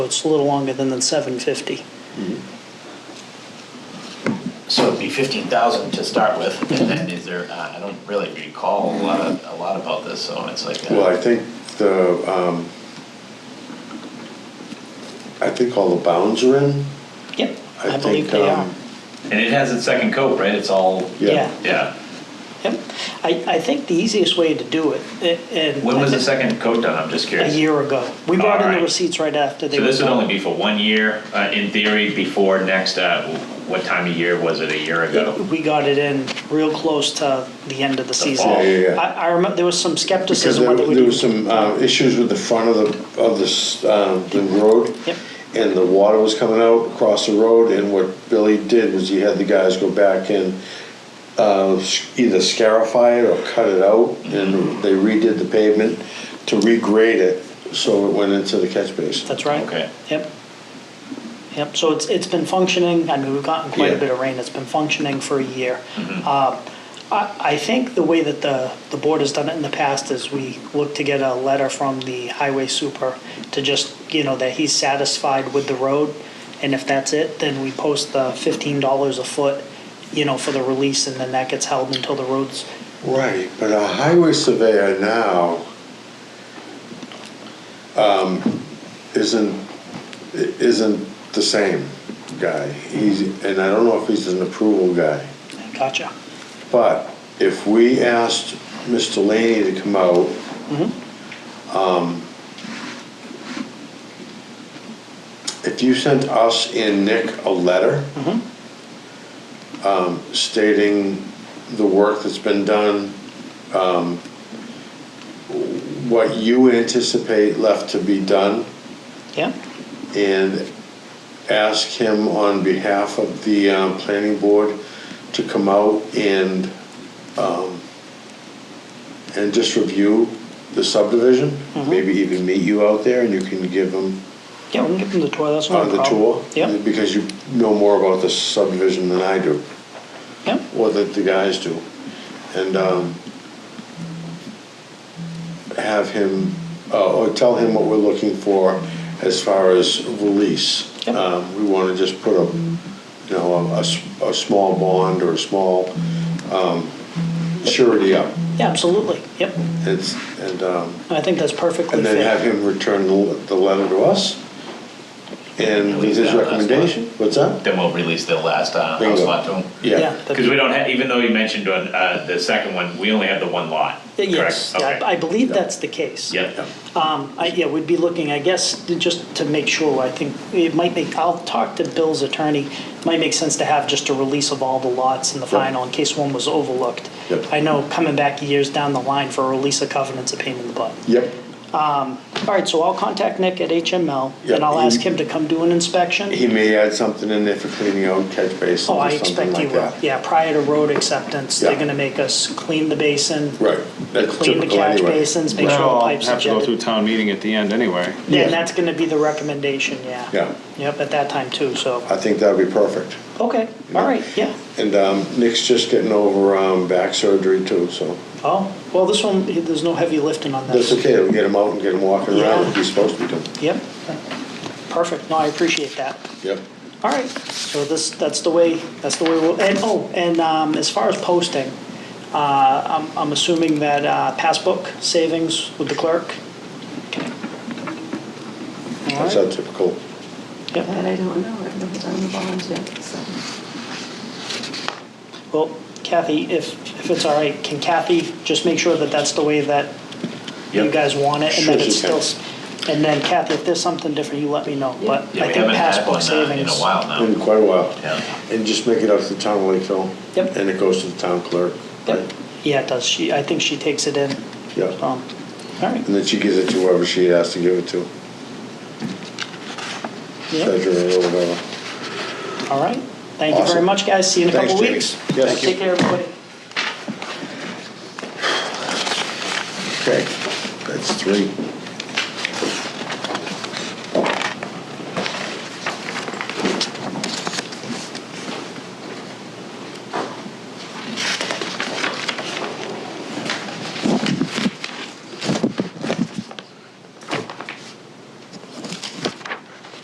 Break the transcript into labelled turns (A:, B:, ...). A: it's a little longer than the seven fifty.
B: So it'd be fifteen thousand to start with, and then is there, uh, I don't really recall a lot, of- a lot about this, so it's like. uh,
C: Well, I think the, um, I think all the bounds are in.
A: Yep,
C: I
A: I believe
C: think,
A: they are.
C: um,
B: And it has its second coat, right? It's all,
A: Yeah.
B: yeah.
A: Yep. I, I think the easiest way to do it, a- and.
B: When was
A: I
B: the
A: think
B: second coat done? I'm just
A: A
B: curious.
A: year ago. We brought in the
B: Alright.
A: receipts right after they
B: So
A: were.
B: this would
A: done.
B: only be for one year, uh, in theory, before next, uh, what time of year was it a year ago?
A: We got it in real close to the end of the season.
B: fall.
C: Yeah, yeah, yeah.
A: I, I remember, there was some
C: Because
A: skepticism
C: there
A: whether we.
C: there was some uh, issues with the front of the, of the, s- uh, the road.
A: Yep.
C: And the water was coming out across the road, and what Billy did was he had the guys go back and uh, s- either scarify it or cut it out,
A: Mm-hmm.
C: and they redid the pavement to regrade it, so it went into the catch basin.
A: That's right.
B: Okay.
A: Yep. Yep, so it's, it's been functioning, I mean, we've gotten quite a
C: Yeah.
A: bit of rain, it's been functioning for a year. Uh, I, I think the way that the, the board has done it in the past is we look to get a letter from the highway super to just, you know, that he's satisfied with the road, and if that's it, then we post the fifteen dollars a foot, you know, for the release, and then that gets held until the road's,
C: Right, but a highway surveyor now um, isn't, i- isn't the same guy. He's, and I don't know if he's an approval guy.
A: gotcha,
C: But if we asked Mr. Laney to come out, um, if you sent us and Nick a letter um, stating the work that's been done, um, what you anticipate left to be done,
A: yeah?
C: and ask him on behalf of the uh, planning board to come out and, um, and just review the subdivision,
A: Mm-hmm.
C: maybe even meet you out there and you can give him
A: Yeah, we can give them the tour, that's not
C: on
A: a
C: Uh, the
A: problem.
C: tour.
A: Yep,
C: Because you know more about the subdivision than I do,
A: yep,
C: or that the guys do. And um, have him, uh, or tell him what we're looking for as far as release.
A: Yep.
C: Um, We want to just put a, you know, a- a, s- a small bond or a small um, surety up.
A: yeah, absolutely, yep.
C: It's, and, um,
A: I think that's perfectly
C: and then have
A: fair.
C: him return the le- the letter to us and with
B: Release
C: his
B: that last one.
C: recommendation. What's that?
B: Then we'll release the last, uh,
C: Bingo.
B: house lot to 'em.
C: Yeah.
A: that-
B: Because we don't have, even though you mentioned on uh, the second one, we only have the one lot, correct?
A: Uh, Yes, I
B: Okay.
A: I believe that's the case.
B: Yep.
A: Um, I- Yeah, we'd be looking, I guess, to- just to make sure, I think it might make, I'll talk to Bill's attorney, might make sense to have just a release of all the lots in the
C: Yep.
A: final in case one was overlooked.
C: Yep.
A: I know coming back years down the line for a release of covenants, a pain in the butt.
C: Yep.
A: All right, so I'll contact Nick at HML,
C: Yep,
A: and I'll
C: he-
A: ask him to come do an inspection.
C: He may add something in there for cleaning out catch basins
A: Oh, I
C: or
A: expect
C: something
A: he
C: like
A: will.
C: that.
A: Yeah, prior to road acceptance, they're
C: Yeah.
A: going to make us clean the basin,
C: Right, that's
A: clean the
C: typical
A: catch
C: anyway.
A: basins, make sure
D: That'll
A: the
D: all
A: pipes are
D: have to go
A: jetted.
D: through town meeting at the end anyway.
A: Yeah, and
C: Yeah.
A: that's gonna be the recommendation, yeah.
C: Yeah.
A: Yep, at that time too, so,
C: I think that'd be perfect.
A: okay, all right, yeah.
C: And um, Nick's just getting over um, back surgery too, so
A: Oh, well, this one, there's no heavy lifting on
C: that's
A: this.
C: okay, we'll get him out and get him walking around
A: Yeah.
C: like he's supposed to be doing.
A: Yep, perfect, no, I appreciate that.
C: Yep.
A: All right, so this, that's the way, that's the way we'll, and, oh, and um, as far as posting, uh, I'm, I'm assuming that uh, passbook savings with the clerk? All
C: That's
A: right,
C: that typical.
A: yep,
E: That I don't know, I've never done the bonds yet, so.
A: well, Kathy, if, if it's all right, can Kathy just make sure that that's the way that you
B: Yep.
A: guys want it, and
C: Sure,
A: then it's
C: she can.
A: still, and then Kathy, if there's something different, you let me know, but
B: Yeah,
A: I
B: we
A: think
B: haven't had
A: passbook
B: one uh, in
A: savings.
B: a while
C: In
B: now.
C: quite a while.
B: Yeah.
C: And just make it up to the town of Lakeville.
A: Yep.
C: And it goes to the town clerk.
A: Yep. Yeah, it does, she, I think she takes it in, um,
C: Yeah.
A: all right,
C: And then she gives it to whoever she has to give it to,
A: yeah,
C: treasurer or whatever.
A: all right. Thank you very
C: Awesome.
A: much, guys, see you in a
C: Thanks,
A: couple
C: Jamie.
A: weeks.
C: Yes.
A: Thank you. Take care, everybody.
C: Okay, that's three.